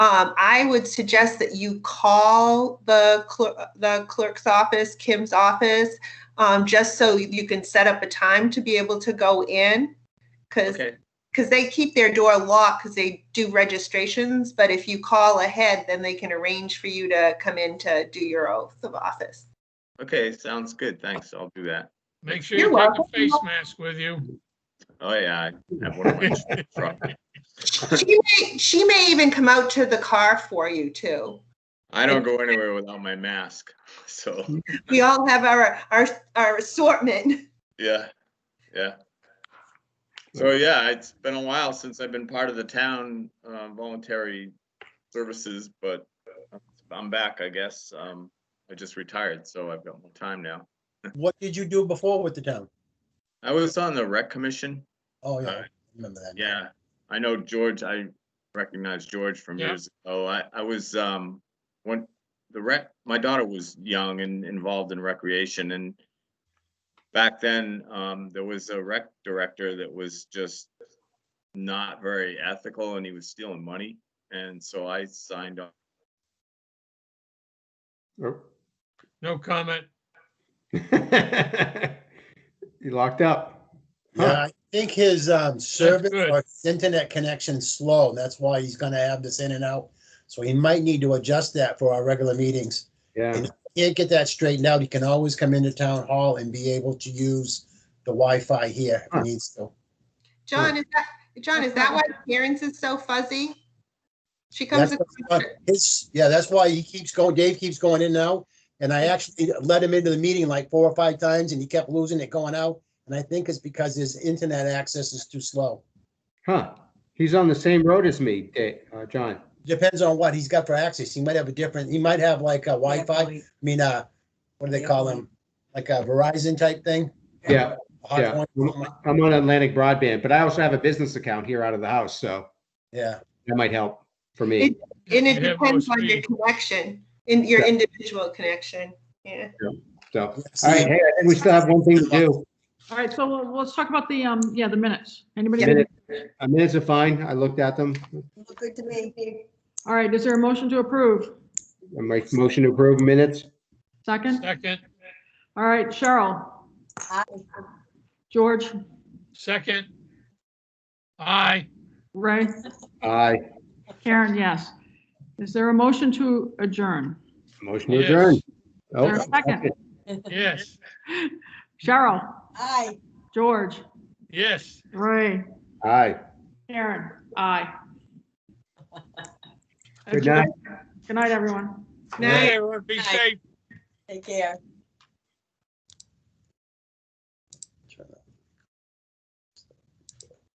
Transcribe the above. Um, I would suggest that you call the clerk, the clerk's office, Kim's office, um, just so you can set up a time to be able to go in. Cause, Okay, cause they keep their door locked because they do registrations, but if you call ahead, then they can arrange for you to come in to do your oath of office. okay, sounds good. Thanks. I'll do that. Make sure You're you take welcome. a face mask with you. Oh, yeah, I have one of my truck. She may, she may even come out to the car for you too. I don't go anywhere without my mask. So, We all have our, our, our assortment. yeah, yeah. So, yeah, it's been a while since I've been part of the town uh, voluntary services, but uh, I'm back, I guess. Um, I just retired, so I've got more time now. What did you do before with the town? I was on the rec commission. Oh, yeah, Uh, I remember that. Yeah, I know George, I recognize George from Yeah. years ago. I, I was, um, when the rec, my daughter was young and involved in recreation and back then, um, there was a rec director that was just not very ethical and he was stealing money. And so I signed up. Nope. No comment. You locked up. Yeah, I think his um service good. or his internet connection's slow. and That's why he's gonna have this in and out. So he might need to adjust that for our regular meetings. Yeah, Can't get that straightened out. He can always come into town hall and be able to use the Wi-Fi here if he Huh. needs to. John, is that, John, is that why Karen's is so fuzzy? She comes, That's across- Uh, It's, yeah, that's why he keeps going, Dave keeps going in now, and I actually let him into the meeting like four or five times and he kept losing it going out. And I think it's because his internet access is too slow. huh. He's on the same road as me, Da- uh, John. Depends on what he's got for access. He might have a different, he might have like a Wi-Fi. I mean, uh, what do they call them? Like a Verizon type thing? Yeah, yeah. Mm-hmm. Hotpoint, something like- I'm on Atlantic Broadband, but I also have a business account here out of the house, so Yeah, that might help for me. and it They have depends no on your speed. connection, in your Yeah. individual connection, yeah. So, all right, hey, I think we still have one thing to do. All right, so we'll- let's talk about the, um, yeah, the minutes. Anybody? Minutes uh, minutes are fine. I looked at them. Good to me. All right, is there a motion to approve? I make motion to approve minutes. Second? Second, All right, Cheryl, Aye. George, second. Aye, Ray, Aye. Karen, yes. Is there a motion to adjourn? Motion Yes. adjourned. Is there Oh, a second? yes, Cheryl, Aye. George, yes. Ray, aye. Karen, aye. Good night. Good night, everyone. Night. Hey, everyone, be Night. safe. Take care. Turn that